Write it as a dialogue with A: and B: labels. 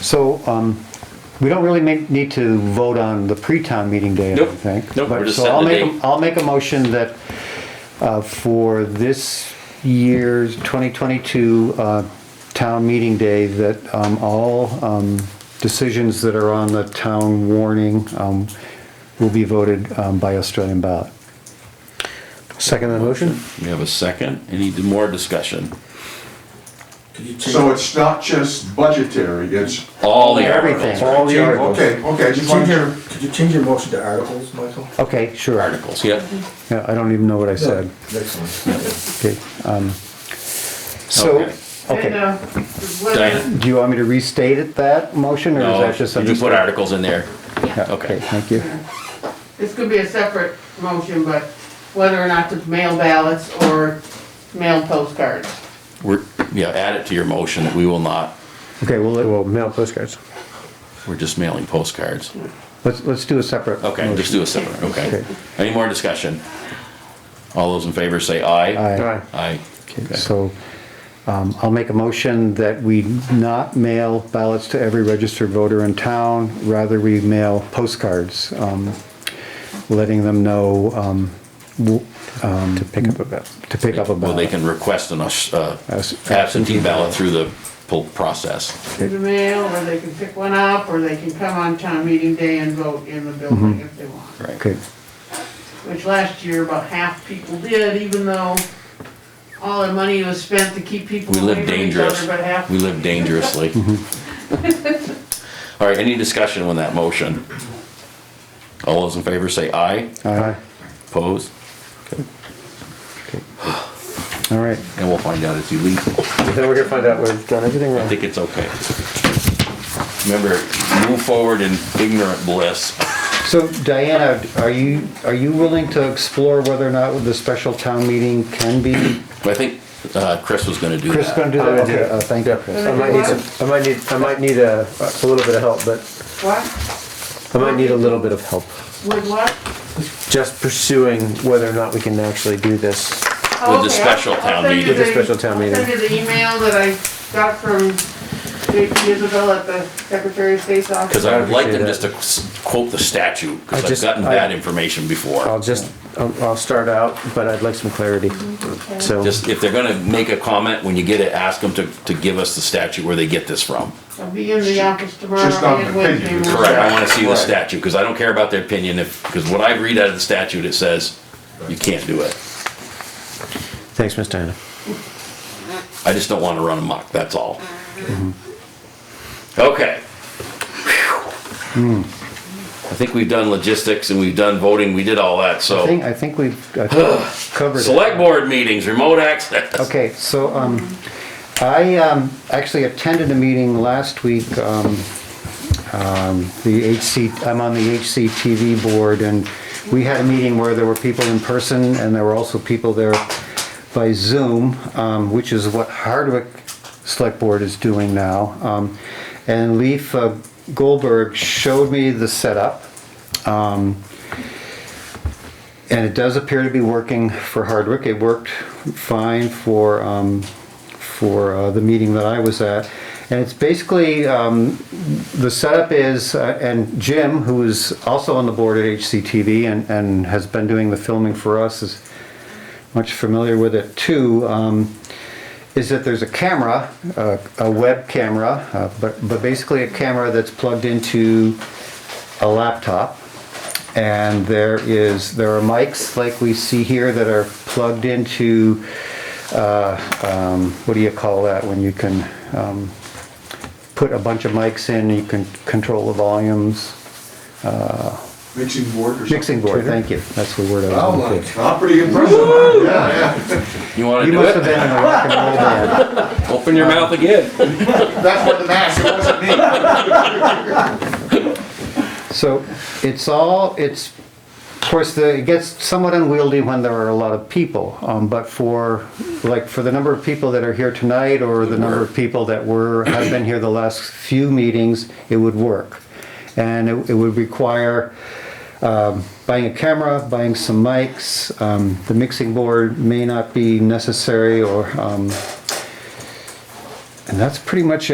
A: So, um, we don't really make, need to vote on the pre-town meeting day, I don't
B: Nope.
A: think.
B: Nope,
A: But-
B: we're just
A: so I'll
B: setting the
A: make a-
B: date.
A: I'll make a motion that, uh, for this year's twenty twenty-two, uh, town meeting day, that, um, all, um, decisions that are on the town warning, um, will be voted, um, by Australian ballot.
C: Second the motion?
B: We have a second. Any more discussion?
D: So it's not just budgetary, it's,
B: All the
A: Everything,
B: articles.
A: all the articles.
D: okay, okay, I
C: Could you
D: just
C: change
D: wanted
C: your,
D: to,
C: could you change your motion to articles, Michael?
A: Okay, sure.
B: Articles, yep.
A: Yeah, I don't even know what I said.
C: Excellent.
A: Okay, um, so,
B: Okay.
E: And,
A: okay.
E: uh, whether-
B: Diana?
A: Do you want me to restate it, that motion, or is
B: No,
A: that just
B: did
A: something?
B: you put articles in there?
A: Yeah,
B: Okay.
A: Okay, thank you.
E: This could be a separate motion, but whether or not to mail ballots or mail postcards.
B: We're, yeah, add it to your motion that we will not,
A: Okay, well, let-
C: Well, mail postcards.
B: we're just mailing postcards.
A: let's, let's do a separate.
B: Okay, just do a separate, okay. Any more discussion? All those in favor say aye.
A: Aye.
B: Aye.
A: Okay, So um, I'll make a motion that we not mail ballots to every registered voter in town, rather we mail postcards, um, letting them know um, w- um,
C: To pick up a bit.
A: to pick up a
B: Well, they
A: ballot.
B: can request an us- uh,
A: As-
B: absentee ballot through the poll process.
E: Through the mail, or they can pick one up, or they can come on town meeting day and vote in the
B: Mm-hmm.
E: building if they want.
B: Right.
A: Okay,
E: Which last year, about half people did, even though all the money was spent to keep people
B: We
E: away
B: live
E: from each other,
B: dangerous.
E: but half.
B: We live dangerously.
C: Mm-hmm.
B: All right, any discussion on that motion? All those in favor say aye.
A: aye,
B: Opposed?
A: all right.
B: And we'll find out it's illegal.
C: Then we're gonna find out we've done everything
B: I
C: wrong.
B: think it's okay. Remember, move forward in ignorant bliss.
A: So Diana, are you, are you willing to explore whether or not the special town meeting can be?
B: I think uh, Chris was gonna do
A: Chris
B: that.
A: gonna do
C: I'm
A: that?
C: gonna do
A: Okay,
C: that.
A: uh, thank you, Chris.
C: Oh, I might need some, I might need, I might need a, a little bit of help, but
E: What,
C: I might need a little bit of help.
E: with what?
C: Just pursuing whether or not we can actually do this.
E: Oh,
B: With the special town meeting.
C: With the special town meeting.
E: I'll send you the email that I got from JP Isabel at the Secretary of State's
B: Because
E: office.
B: I would like them
C: Appreciate
B: just to s- quote the statute,
C: I
B: because I've
C: just-
B: gotten
C: I-
B: that information
C: I'll
B: before.
C: just, I'll, I'll start out, but I'd like some clarity, so.
B: Just, if they're gonna make a comment, when you get it, ask them to, to give us the statute where they get this from.
E: I'll be in the office tomorrow
D: Just not an
E: and Wednesday
D: opinion,
E: morning.
D: it's
B: Correct, I wanna see the
D: Right.
B: statute, because I don't care about their opinion if, because what I read out of the statute, it says, you can't do it.
C: Thanks, Miss Diana.
B: I just don't wanna run amok, that's all.
A: Mm-hmm.
B: Okay. I think we've done logistics and we've done voting, we did all that,
A: I think,
B: so.
A: I think we've uh, covered it.
B: Select board meetings, remote access.
A: Okay, so, um, I, um, actually attended a meeting last week, um, um, the HC, I'm on the HCTV board, and we had a meeting where there were people in person, and there were also people there by Zoom, um, which is what Hardwick Select Board is doing now. Um, and Leif uh, Goldberg showed me the setup, and it does appear to be working for Hardwick. It worked fine for, um, for uh, the meeting that I was at. And it's basically, um, the setup is, uh, and Jim, who is also on the board at HCTV and, and has been doing the filming for us, is much familiar with it too. Um, is that there's a camera, uh, a web camera, uh, but, but basically a camera that's plugged into a laptop. And there is, there are mics like we see here that are plugged into, uh, um, what do you call that when you can um, put a bunch of mics in, you can control the volumes?
D: mixing board or something.
A: Mixing board, thank you, that's the word I was
D: Wow,
A: looking for.
D: I'm pretty impressed, yeah, yeah.
B: You wanna
A: You
B: do
A: must have
B: it?
A: been in a rock and roll band.
B: Open your mouth again.
D: That's what the mask, it wasn't me.
A: So it's all, it's, of course, the, it gets somewhat unwieldy when there are a lot of people. Um, but for, like, for the number of people that are here tonight or the number of people that were, have been here the last few meetings, it would work. And it, it would require, um, buying a camera, buying some mics. Um, the mixing board may not be necessary or, um, and that's pretty much it.